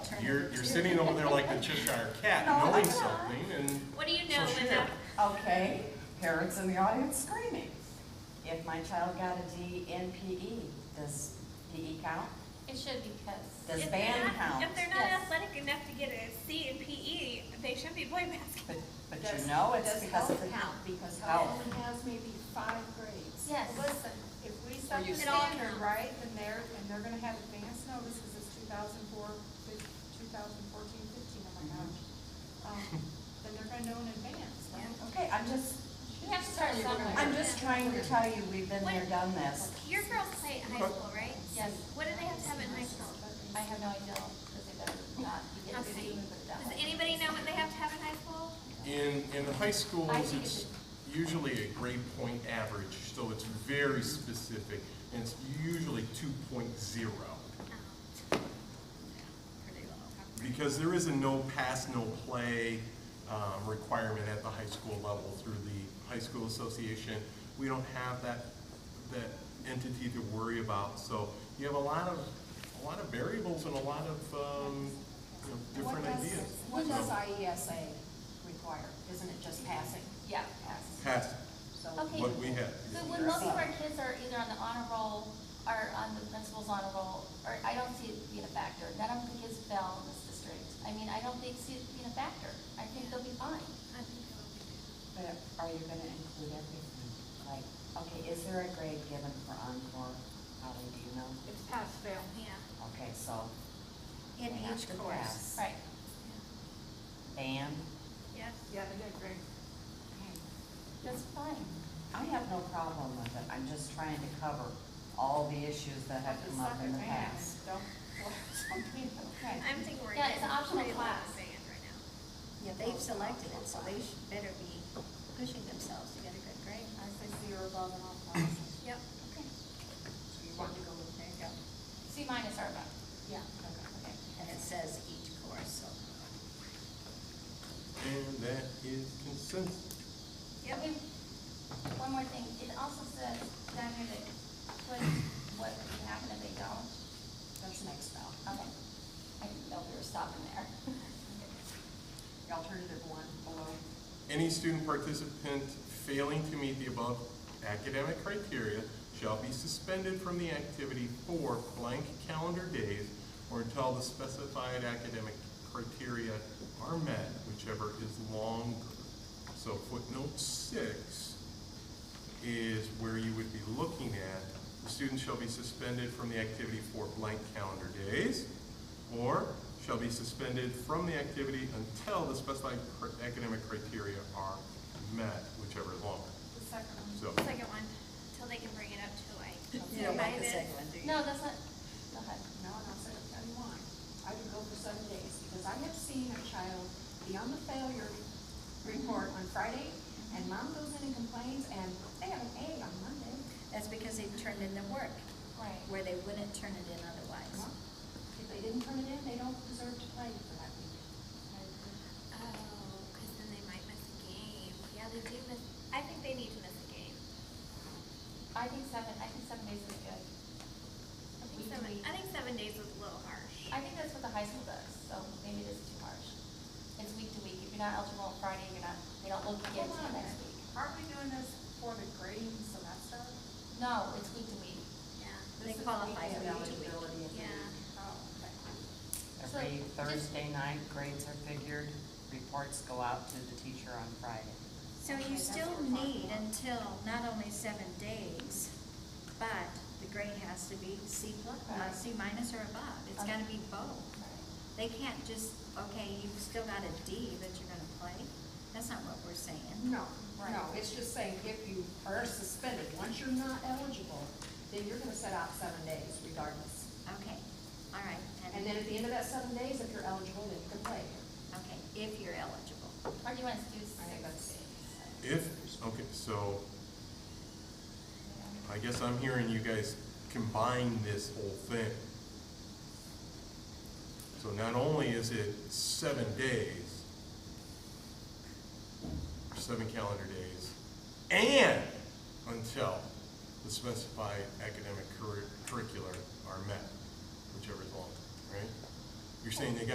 You're, you're sitting over there like the Cheshire Cat, knowing something, and What do you know So when share. that, Okay, parents in the audience screaming. If my child got a D in PE, does PE count? It should because, Does if they're band not- count? If they're not Yes. athletic enough to get a C in PE, they should be boy basketball. But, but you know it's because of the. Does health count, because Health. health only has maybe five grades. Yes. Listen, if we set the It all standard counts. right, then they're, and they're gonna have advanced notice, because it's 2004, fif- 2014, 15, oh my gosh. Um, Then they're gonna know in advance, right? Okay, I'm just, we have to start somewhere. I'm just trying to tell you, we've been there, done this. Your girls play in high school, right? Yes. What do they have to have in high school? I have no idea, because they better not be getting Okay. busy with that. Does anybody know what they have to have in high school? in, in the high I schools, think it's usually a grade point average, so it's very specific, and it's usually two point zero. Oh. Pretty low. Because there is a no pass, no play, um, requirement at the high school level through the high school association. We don't have that, that entity to worry about, so you have a lot of, a lot of variables and a lot of, um, you know, What different does- ideas. What does So, E IESA require? Isn't it just passing? Yeah. Pass, So Okay. what we have. So when most of our kids are either on the honor roll or on the principal's honor roll, or I don't see it being a factor. None of the kids fell in this district. I mean, I don't think, see it being a factor. I think they'll be fine. I think that would be But are you gonna include everything? Like, okay, is there a grade given for encore? Holly, do you know? It's pass fail. good. Yeah. Okay, so. In they have each to pass. course. Right. Band. Yes. Yeah, they did great. Okay. That's fine. I have no problem with it, I'm just trying to cover all the issues that have come up in the past. Don't, something, okay. I'm thinking we're. Yeah, it's getting an optional pretty low on class. band right now. Yeah, they've selected it, so they should better be pushing themselves to get a good grade. I say zero above and all classes. Yep. So you want to go with, there you go. C minus or above. Yeah. Okay. And it says each course, so. And that is consensus. Yeah, we, one more thing, it also says down here that put what would happen if they don't. That's next spell. Okay, I didn't know we were stopping there. Alternative one below. Any student participant failing to meet the above academic criteria shall be suspended from the activity for blank calendar days or until the specified academic criteria are met, whichever is longer. So footnote six is where you would be looking at, the student shall be suspended from the activity for blank calendar days, or shall be suspended from the activity until the specified cr- academic criteria are met, whichever is longer. The second one. So, Second one, till they can bring it up to like. You don't like the five-ish. second one, do you? No, that's not, go ahead. No, and I'll say, I want, I would go for seven days, because I have seen a child be on the failure report on Friday, and mom goes in and complains, and they have an A on Monday. That's because they turned in their work, Right. where they wouldn't turn it in otherwise. Well, If they didn't turn it in, they don't deserve to play for that week. Oh, because then they might miss a game. Yeah, they do miss, I think they need to miss a game. I think seven, I think seven days is good. I think seven, I think seven days was a little harsh. I think that's what the high school does, so maybe it is too harsh. It's week to week, if you're not eligible on Friday, you're not, they don't look at it Hold until on. next week. Aren't we doing this for the grading semester? No, it's week to week. Yeah, They This is qualify weekly for each week. eligibility. yeah. Oh, okay. So, Every just- Thursday night, grades are figured, reports go out to the teacher on Friday. So you still need until not only seven days, but the grade has to be C plus, uh, C minus or above. It's gotta be both. They can't just, okay, you've still got a D that you're gonna play. That's not what we're saying. No, no, it's just saying if you are suspended, once you're not eligible, then you're gonna set out seven days regardless. Okay, all right. And then at the end of that seven days, if you're eligible, then you can play. Okay, if you're eligible. Or do you want us to do I think six days? that's- if, okay, so I guess I'm hearing you guys combine this whole thing. So not only is it seven days, seven calendar days, and until the specified academic curri- curricular are met, whichever is longer, right? You're saying they got